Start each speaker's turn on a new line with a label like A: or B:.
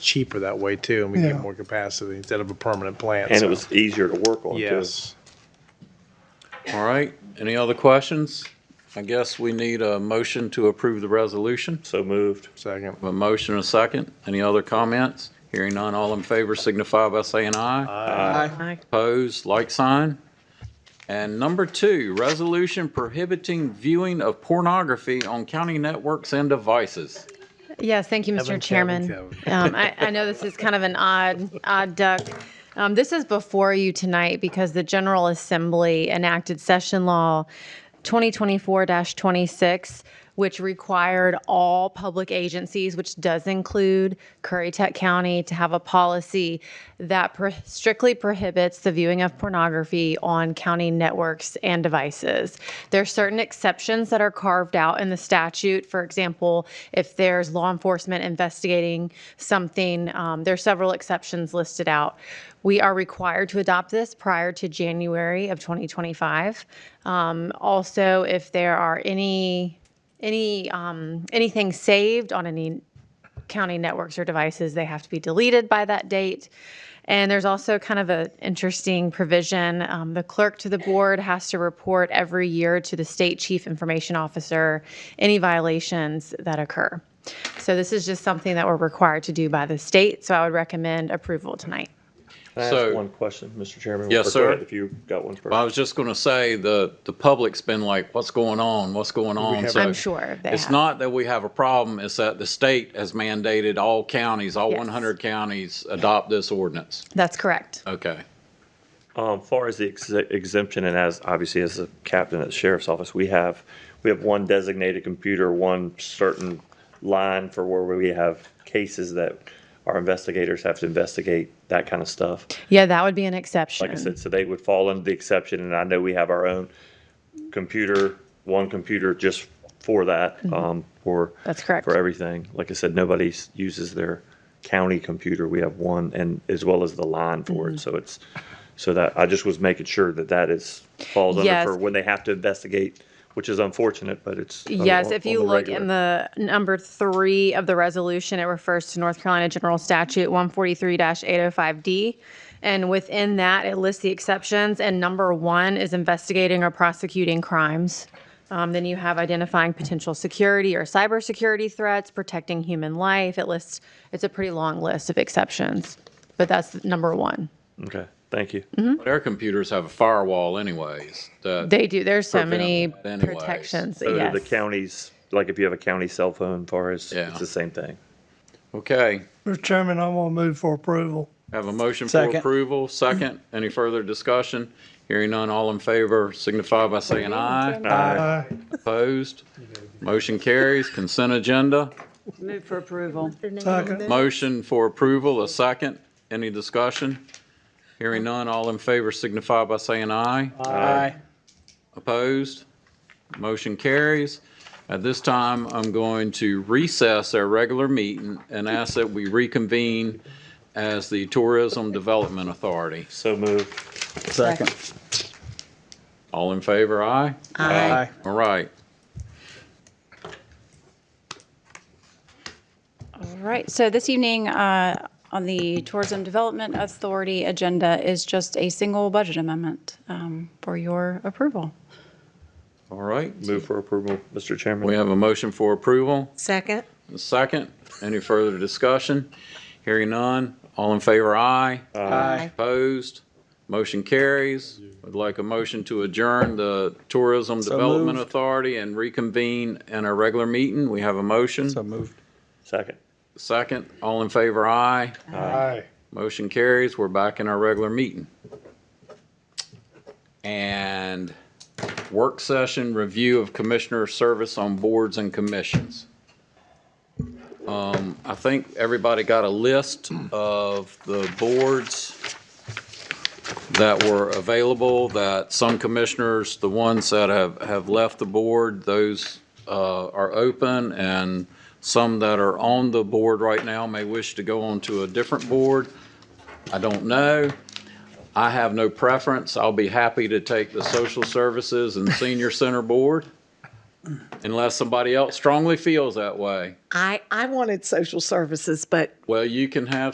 A: cheaper that way too, and we
B: Yeah.
A: get more capacity instead of a permanent plant.
C: And
A: so-
C: it was easier to work on too.
A: Yes.
D: All right, any other questions? I guess we need a motion to approve the resolution.
C: So moved.
A: Second.
D: A motion and a second. Any other comments? Hearing none, all in favor signify by saying aye.
E: Aye.
D: Opposed, like sign. And number two, resolution prohibiting viewing of pornography on county networks and devices.
E: Yes, thank you, Mr.
A: Kevin,
E: Chairman.
A: Kevin.
E: Um, I, I know this is kind of an odd, odd duck. Um, this is before you tonight because the General Assembly enacted Session Law 2024-26, which required all public agencies, which does include Currituck County, to have a policy that pro- strictly prohibits the viewing of pornography on county networks and devices. There are certain exceptions that are carved out in the statute. For example, if there's law enforcement investigating something, um, there are several exceptions listed out. We are required to adopt this prior to January of 2025. Um, also, if there are any any um, anything saved on any county networks or devices, they have to be deleted by that date. And there's also kind of an interesting provision. um, the clerk to the board has to report every year to the state chief information officer any violations that occur. So this is just something that we're required to do by the state. So I would recommend approval tonight.
C: Can I
D: So-
C: ask one question, Mr. Chairman? Or
D: Yes,
C: go
D: sir.
C: ahead If you got one
D: I
C: first.
D: was just going to say, the, the public's been like, what's going on? What's going on?
A: have-
D: So
E: I'm sure they
D: It's
E: have.
D: not that we have a problem, it's that the state has mandated all counties, all
E: Yes.
D: 100 counties adopt this ordinance.
E: That's correct.
D: Okay.
C: Um, far as the ex- exemption and as, obviously as a captain at the sheriff's office, we have, we have one designated computer, one certain line for where we have cases that our investigators have to investigate, that kind of stuff.
E: Yeah, that would be an exception.
C: Like I said, so they would fall under the exception, and I know we have our own computer, one computer just for that, um, for.
E: Mm-hmm. That's correct.
C: For everything. Like I said, nobody s- uses their county computer. We have one, and as well as the line for
E: Mm-hmm.
C: it, so it's, so that, I just was making sure that that is, falls under
E: Yes.
C: for when they have to investigate, which is unfortunate, but it's. on-
E: Yes,
C: on-
E: if
C: on
E: you look in
C: regular.
E: the number three of the resolution, it refers to North Carolina General Statute 143-805D. And within that, it lists the exceptions, and number one is investigating or prosecuting crimes. Um, Then you have identifying potential security or cybersecurity threats, protecting human life. It lists, it's a pretty long list of exceptions, but that's number one.
C: Okay, thank you.
E: Mm-hmm,
D: But our computers have a firewall anyways, that,
E: They do, there's so many
D: Prevent that anyways.
E: protections,
C: So do
E: yes.
C: the counties, like if you have a county cell phone, far as,
D: Yeah.
C: it's the same thing.
D: okay.
B: Mr. Chairman, I'm gonna move for approval.
D: Have a motion for approval, second. Any further discussion? Hearing none, all in favor signify by saying aye.
B: Aye.
D: Opposed? Motion carries, consent agenda.
F: Move for approval.
B: Second.
D: Motion for approval, a second. Any discussion? Hearing none, all in favor signify by saying aye.
C: Aye.
D: Opposed? Motion carries. At this time, I'm going to recess our regular meeting and ask that we reconvene as the Tourism Development Authority.
C: So moved.
F: Second.
D: All in favor, aye?
F: Aye.
D: All right.
G: All right, so this evening, uh, on the Tourism Development Authority agenda is just a single budget amendment um, for your approval.
D: All right.
C: Move for approval, Mr. Chairman.
D: We have a motion for approval,
E: Second.
D: a second. Any further discussion? Hearing none. All in favor, aye.
F: Aye.
D: Opposed? Motion carries. Would like a motion to adjourn the Tourism Development Authority and reconvene in a regular meeting. We have a motion.
C: Second.
D: Second. All in favor, aye.
A: Aye.
D: Motion carries. We're back in our regular meeting. And work session review of commissioner service on boards and commissions. Um, I think everybody got a list of the boards that were available, that some commissioners, the ones that have, have left the board, those uh, are open, and some that are on the board right now may wish to go on to a different board. I don't know. I have no preference. I'll be happy to take the Social Services and Senior Center Board. unless somebody else strongly feels that way.
H: I, I wanted social services, but
D: Well, you can have